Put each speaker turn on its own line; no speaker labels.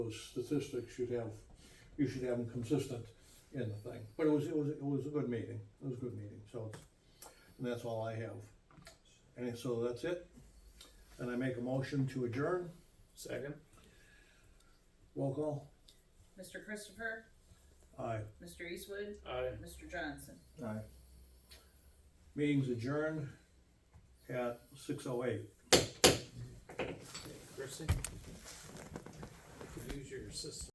Those statistics should have, you should have them consistent in the thing, but it was, it was, it was a good meeting, it was a good meeting, so it's, and that's all I have. And so that's it, and I make a motion to adjourn,
Second?
roll call,
Mr. Christopher,
aye.
Mr. Eastwood,
Aye.
Mr. Johnson.
Aye. Meeting's adjourned at six oh eight.
Kristen? Could use your assistance.